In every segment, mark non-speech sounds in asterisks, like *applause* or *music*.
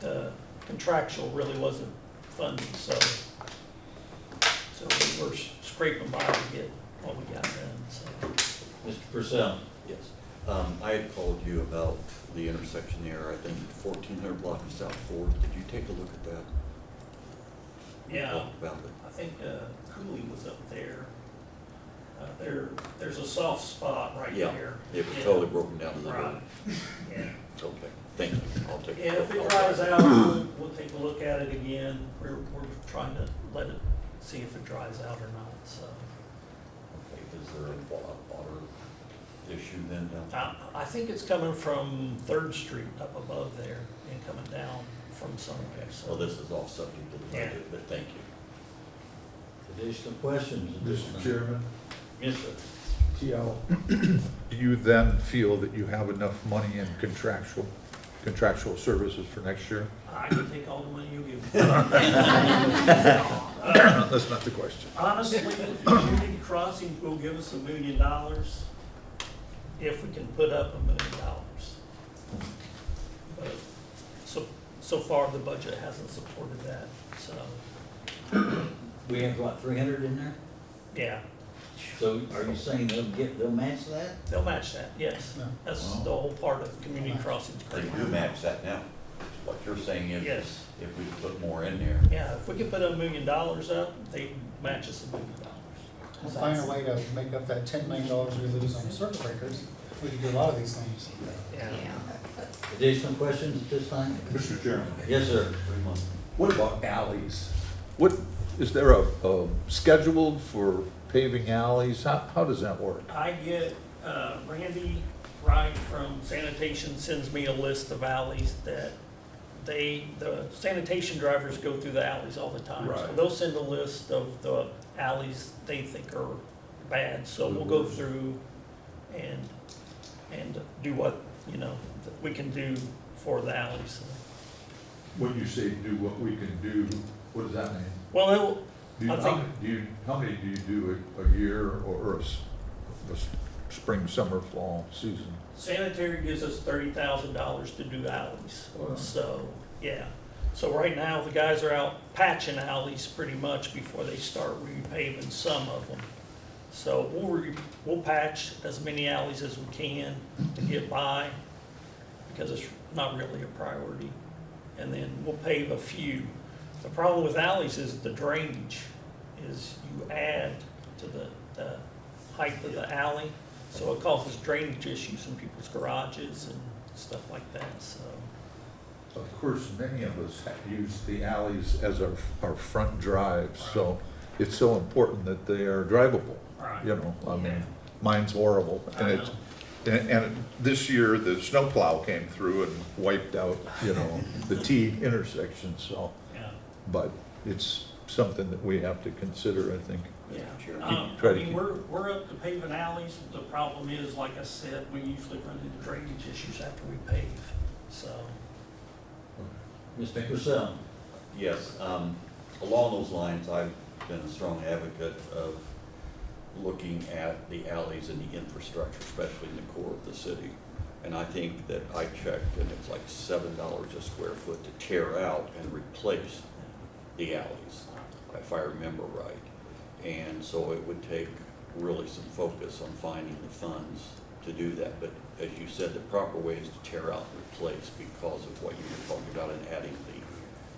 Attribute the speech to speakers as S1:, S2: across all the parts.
S1: the contractual really wasn't funded, so. So we were scraping by to get what we got done, so.
S2: Mr. Purcell?
S3: Yes. Um, I had called you about the intersection there, I think fourteen hundred block of South Fourth. Did you take a look at that? We
S1: Yeah,
S3: talked About it.
S1: I think uh, Cooley was up there. Uh, There, there's a soft spot right
S3: Yeah,
S1: there.
S3: It was
S1: Yeah,
S3: totally broken *laughs* down in the road.
S1: Right, yeah.
S3: Okay, thank you. I'll take.
S1: And if it
S3: I'll-
S1: dries out, we'll, we'll take a look at it again. We're, we're trying to let it, see if it dries out or not, so.
S3: Okay, Is there a wa- water issue then down?
S1: I, I think it's coming from Third Street up above there and coming down from somewhere, so.
S3: Well, this is off subject to the
S1: Yeah.
S3: budget, but thank you.
S2: Additional questions? at this
S4: Mr.
S2: time?
S4: Chairman,
S2: Yes, sir.
S4: TL. Do you then feel that you have enough money in contractual, contractual services for next year? *clears throat*
S1: I can take all the money you give. Uh,
S4: That's not the question.
S1: Honestly, if community crossings will give us a million dollars if we can put up a million dollars. But so, so far, the budget hasn't supported that, so,
S2: We have what, three hundred in there?
S1: yeah,
S2: So are you saying they'll get, they'll match that?
S1: they'll match that, yes. That's the whole part of community crossings.
S3: They do match that now. What you're saying is,
S1: Yes,
S3: if we put more in there,
S1: yeah, if we could put a million dollars up, they match us a million dollars.
S5: We'll find a way to make up that ten million dollars we lose on the circuit breakers. We can do a lot of these things.
S1: Yeah.
S2: Additional questions at this time?
S6: Mr. Chairman,
S2: Yes, sir.
S6: what about alleys?
S4: What, is there a, a schedule for paving alleys? How, how does that work?
S1: I get, uh, Randy Wright from sanitation sends me a list of alleys that they, the sanitation drivers go through the alleys all the time. So
S6: Right.
S1: They'll send a list of the alleys they think are bad, so we'll go through and, and do what, you know, that we can do for the alleys.
S4: When you say do what we can do, what does that mean?
S1: Well, it'll,
S4: Do you,
S1: I
S4: how,
S1: think-
S4: do you, how many do you do a, a year or a, s- a s- spring, summer, fall season?
S1: Sanitary gives us thirty thousand dollars to do alleys,
S4: Wow.
S1: so, yeah. So right now, the guys are out patching alleys pretty much before they start repaving some of them. So we'll, re- we'll patch as many alleys as we can to get by, because it's not really a priority. And then we'll pave a few. The problem with alleys is the drainage, is you add to the, the height of the alley, so it causes drainage issues in people's garages and stuff like that, so.
S4: Of course, many of us ha- use the alleys as our, our front drives, so it's so important that they are drivable, you know, I
S1: Yeah.
S4: mean, mine's horrible, and it's, and, and this year, the snowplow came through and wiped out, you know, the T intersection, so,
S1: Yeah,
S4: but it's something that we have to consider, I think.
S1: yeah.
S3: Sure.
S1: Um,
S4: Try
S1: I
S4: to
S1: mean,
S4: keep-
S1: we're, we're up to paving alleys, the problem is, like I said, we usually run into drainage issues after we pave, so.
S2: Mr. Purcell?
S3: Yes, um, along those lines, I've been a strong advocate of looking at the alleys and the infrastructure, especially in the core of the city. And I think that I checked, and it's like seven dollars a square foot to tear out and replace the alleys, if I remember right. And so it would take really some focus on finding the funds to do that. But as you said, the proper way is to tear out and replace because of what you were talking about and adding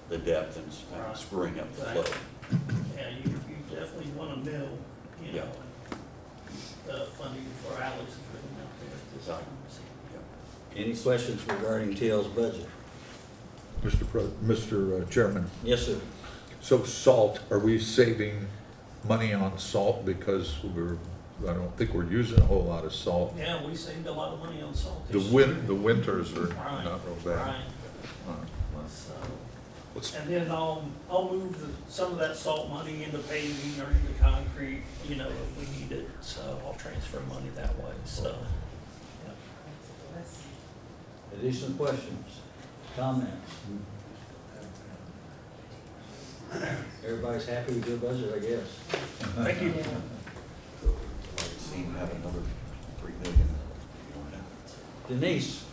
S3: the, the depth and s- and
S1: Right.
S3: screwing up the flow.
S1: Yeah, you, you definitely want to mill, you know, the funding for alleys is really out there at this time. so.
S2: Any questions regarding TL's budget?
S4: Mr. Pre, Mr. Chairman,
S2: Yes, sir.
S4: so salt, are we saving money on salt because we're, I don't think we're using a whole lot of salt?
S1: Yeah, we saved a lot of money on salt.
S4: The
S1: this year.
S4: win, the winters are
S1: Right,
S4: not real bad.
S1: Right, so,
S4: Let's-
S1: uh, and then I'll, I'll move the- some of that salt money into paving or into concrete, you know, if we need it, so I'll transfer money that way, so.
S2: Additional questions, comments? Everybody's happy with your budget, I guess.
S1: Thank you.
S3: I've seen that another three million.
S2: Denise?